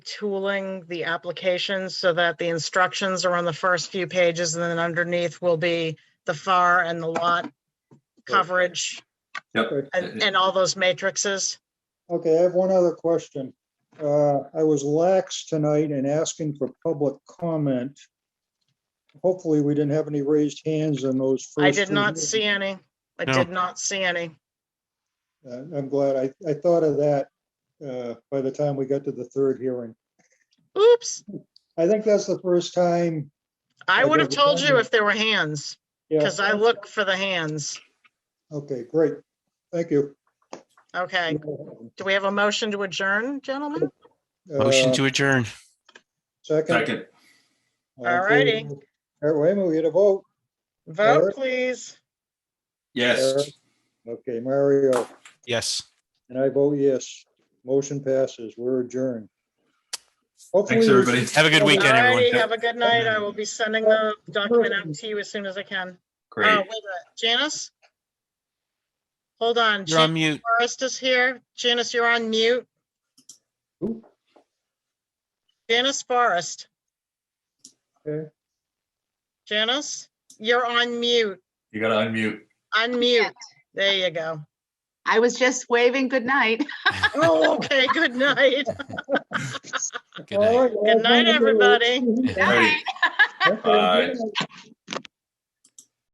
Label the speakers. Speaker 1: tooling the applications so that the instructions are on the first few pages and then underneath will be the FAR and the lot coverage
Speaker 2: Yep.
Speaker 1: and, and all those matrices.
Speaker 3: Okay, I have one other question. Uh, I was lax tonight in asking for public comment. Hopefully, we didn't have any raised hands on those first.
Speaker 1: I did
Speaker 3: two
Speaker 1: not
Speaker 3: minutes.
Speaker 1: see any. I
Speaker 4: No.
Speaker 1: did not see any.
Speaker 3: Uh, I'm glad. I, I thought of that uh, by the time we got to the third hearing.
Speaker 1: Oops.
Speaker 3: I think that's the first time.
Speaker 1: I
Speaker 3: I
Speaker 1: would have
Speaker 3: did
Speaker 1: told you
Speaker 3: remember.
Speaker 1: if there were hands,
Speaker 3: yeah.
Speaker 1: because I look for the hands.
Speaker 3: Okay, great. Thank you.
Speaker 1: Okay. Do we have a motion to adjourn, gentlemen?
Speaker 4: Motion
Speaker 3: Uh,
Speaker 4: to adjourn.
Speaker 3: Second.
Speaker 2: Second,
Speaker 1: All righty.
Speaker 3: All right, wait a minute, we had a vote.
Speaker 1: Vote, please.
Speaker 3: uh,
Speaker 2: yes.
Speaker 3: Okay, Mario,
Speaker 4: Yes.
Speaker 3: and I vote yes. Motion passes. We're adjourned. Hopefully,
Speaker 2: Thanks, everybody.
Speaker 4: Have a good
Speaker 1: All
Speaker 4: weekend, everyone.
Speaker 1: righty, have a good night. I will be sending the document out to you as soon as I can. Oh, wait a
Speaker 2: Great.
Speaker 1: minute. Janice? Hold on,
Speaker 4: You're on
Speaker 1: Janice
Speaker 4: mute.
Speaker 1: Forrest is here. Janice, you're on mute.
Speaker 3: Who?
Speaker 1: Janice Forrest.
Speaker 3: Okay.
Speaker 1: Janice, you're on mute.
Speaker 2: You gotta unmute.
Speaker 1: Unmute. There you go.
Speaker 5: I was just waving good night.
Speaker 1: Oh, okay, good night.
Speaker 4: Good night.
Speaker 1: Good night, everybody.
Speaker 2: Bye.